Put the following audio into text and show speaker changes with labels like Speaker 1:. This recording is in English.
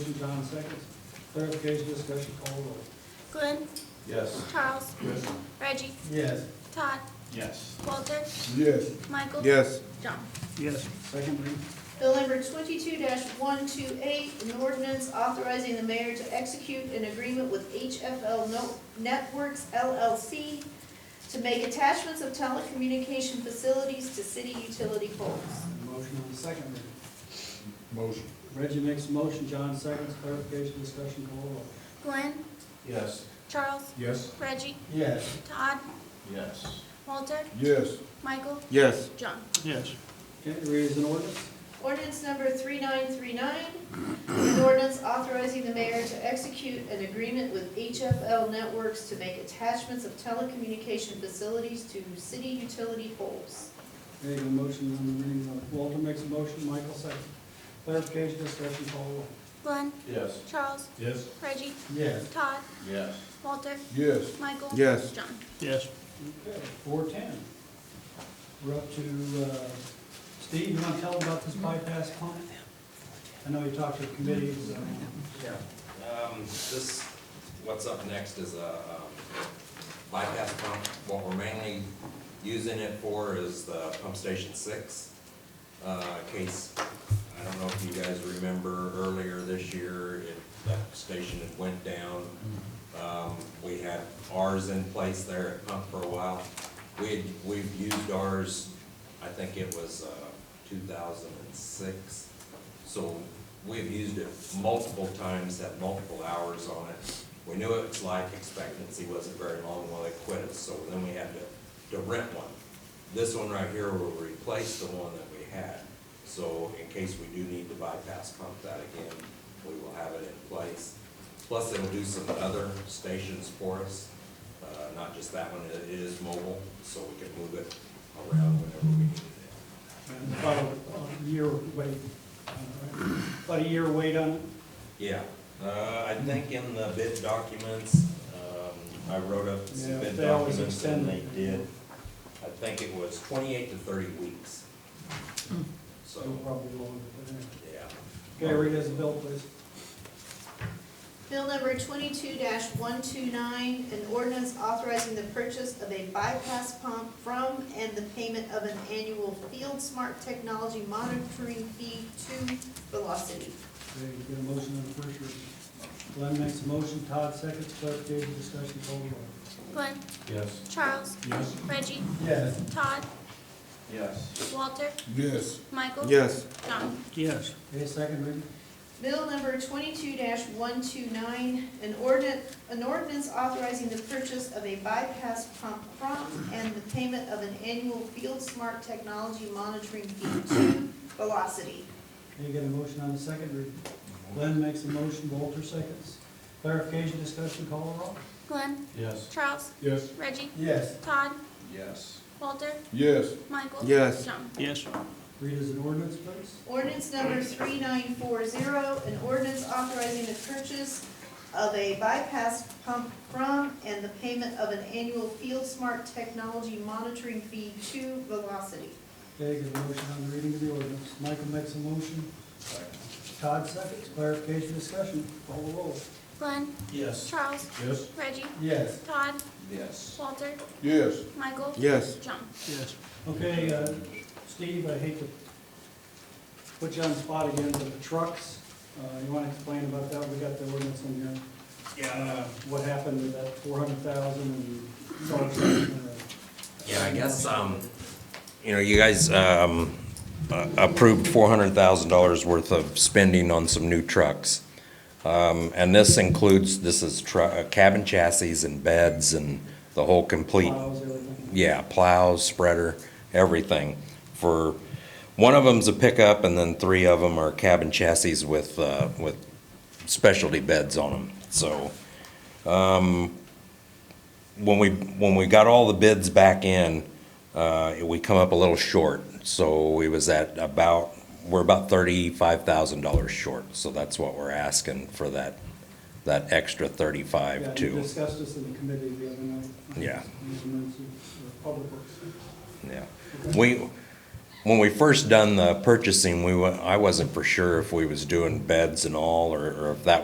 Speaker 1: Motion, John seconds. Clarification, discussion, call roll.
Speaker 2: Glenn,
Speaker 3: Yes.
Speaker 2: Charles,
Speaker 3: Yes.
Speaker 2: Reggie,
Speaker 1: Yes.
Speaker 2: Todd,
Speaker 3: Yes.
Speaker 2: Walter,
Speaker 3: Yes.
Speaker 2: Michael.
Speaker 4: Yes.
Speaker 5: John.
Speaker 1: Yes. Second reading.
Speaker 5: Bill number twenty-two one two eight, an ordinance authorizing the mayor to execute an agreement with HFL No- Networks LLC to make attachments of telecommunication facilities to city utility poles.
Speaker 1: Motion on the second reading.
Speaker 3: Motion.
Speaker 1: Reggie makes a motion, John seconds. Clarification, discussion, call roll.
Speaker 2: Glenn,
Speaker 3: Yes.
Speaker 2: Charles,
Speaker 3: Yes.
Speaker 2: Reggie,
Speaker 1: Yes.
Speaker 2: Todd,
Speaker 3: Yes.
Speaker 2: Walter,
Speaker 3: Yes.
Speaker 2: Michael,
Speaker 4: Yes.
Speaker 2: John.
Speaker 1: Yes. Okay, read as an ordinance.
Speaker 5: Ordinance number three-nine-three-nine, an ordinance authorizing the mayor to execute an agreement with HFL Networks to make attachments of telecommunication facilities to city utility poles.
Speaker 1: Okay, a motion on the reading of, Walter makes a motion, Michael seconds. Clarification, discussion, call roll.
Speaker 2: Glenn,
Speaker 3: Yes.
Speaker 2: Charles,
Speaker 3: Yes.
Speaker 2: Reggie,
Speaker 1: Yes.
Speaker 2: Todd,
Speaker 3: Yes.
Speaker 2: Walter,
Speaker 3: Yes.
Speaker 2: Michael.
Speaker 4: Yes.
Speaker 2: John.
Speaker 6: Yes,
Speaker 1: Okay, four ten. We're up to, uh, Steve, you want to tell about this bypass pump? I know you talked to the committee, so.
Speaker 7: Yeah, um, this, what's up next is a um, bypass pump. What we're mainly using it for is the pump station six. Uh, case, I don't know if you guys remember earlier this year, it, that station had went down. Um, we had ours in place there at pump for a while. We had, we've used ours, I think it was, uh, two thousand and six. So we've used it multiple times, had multiple hours on it. We knew its life expectancy wasn't very long while they quit us, so then we had to, to rent one. This one right here will replace the one that we had. So in case we do need to bypass pump that again, we will have it in place. Plus, it'll do some other stations for us, uh, not just that one, it is mobile, so we can move it around whenever we need it.
Speaker 1: And About a- a year wait, uh, about a year wait on it.
Speaker 7: Yeah, uh, I think in the bid documents, um, I wrote up
Speaker 1: Yeah,
Speaker 7: some bid
Speaker 1: they always
Speaker 7: documents and
Speaker 1: extend
Speaker 7: they
Speaker 1: it.
Speaker 7: did. I think it was twenty-eight to thirty weeks. So,
Speaker 1: It'll probably go on, but anyway.
Speaker 7: yeah.
Speaker 1: Okay, read as a bill, please.
Speaker 5: Bill number twenty-two one-two-nine, an ordinance authorizing the purchase of a bypass pump from and the payment of an annual Field Smart Technology monitoring fee to Velocity.
Speaker 1: Okay, you get a motion on the first reading. Glenn makes a motion, Todd seconds, clarification, discussion, call the roll.
Speaker 2: Glenn,
Speaker 3: Yes.
Speaker 2: Charles,
Speaker 3: Yes.
Speaker 2: Reggie,
Speaker 1: Yes.
Speaker 2: Todd,
Speaker 3: Yes.
Speaker 2: Walter,
Speaker 3: Yes.
Speaker 2: Michael.
Speaker 4: Yes.
Speaker 2: John.
Speaker 6: yes,
Speaker 1: Okay, second reading.
Speaker 5: Bill number twenty-two one-two-nine, an ordinance, an ordinance authorizing the purchase of a bypass pump from and the payment of an annual Field Smart Technology monitoring fee to Velocity.
Speaker 1: Okay, you get a motion on the second reading. Glenn makes a motion, Walter seconds. Clarification, discussion, call the roll.
Speaker 2: Glenn,
Speaker 3: Yes.
Speaker 2: Charles,
Speaker 3: Yes.
Speaker 2: Reggie,
Speaker 1: Yes.
Speaker 2: Todd,
Speaker 3: Yes.
Speaker 2: Walter,
Speaker 3: Yes.
Speaker 2: Michael.
Speaker 4: Yes.
Speaker 2: John.
Speaker 6: yes,
Speaker 1: Read as an ordinance, please.
Speaker 5: Ordinance number three nine four zero, an ordinance authorizing the purchase of a bypass pump from and the payment of an annual Field Smart Technology monitoring fee to Velocity.
Speaker 1: Okay, get a motion on the reading of the ordinance. Michael makes a motion. Todd seconds, clarification, discussion, call the roll.
Speaker 2: Glenn,
Speaker 3: Yes.
Speaker 2: Charles,
Speaker 3: Yes.
Speaker 2: Reggie,
Speaker 1: Yes.
Speaker 2: Todd,
Speaker 3: Yes.
Speaker 2: Walter,
Speaker 3: Yes.
Speaker 2: Michael.
Speaker 4: Yes.
Speaker 2: John.
Speaker 6: yes.
Speaker 1: Okay, uh, Steve, I hate to put you on the spot again, but the trucks, uh, you want to explain about that? We got the ordinance in here. Yeah. What happened with that four hundred thousand and so on.
Speaker 7: Yeah, I guess, um, you know, you guys, um, uh, approved four hundred thousand dollars worth of spending on some new trucks. Um, and this includes, this is tru, uh, cabin chassis and beds and the whole complete
Speaker 1: Miles, everything.
Speaker 7: yeah, plows, spreader, everything. For, one of them's a pickup, and then three of them are cabin chassis with, uh, with specialty beds on them, so. um, When we, when we got all the bids back in, uh, we come up a little short, so we was at about, we're about thirty-five thousand dollars short, so that's what we're asking for that, that extra thirty-five
Speaker 1: Yeah, you
Speaker 7: too,
Speaker 1: discussed this in the committee the other night.
Speaker 7: Yeah.
Speaker 1: Emergency, or Public Works.
Speaker 7: yeah.
Speaker 1: Okay.
Speaker 7: We, when we first done the purchasing, we went, I wasn't for sure if we was doing beds and all, or, or if that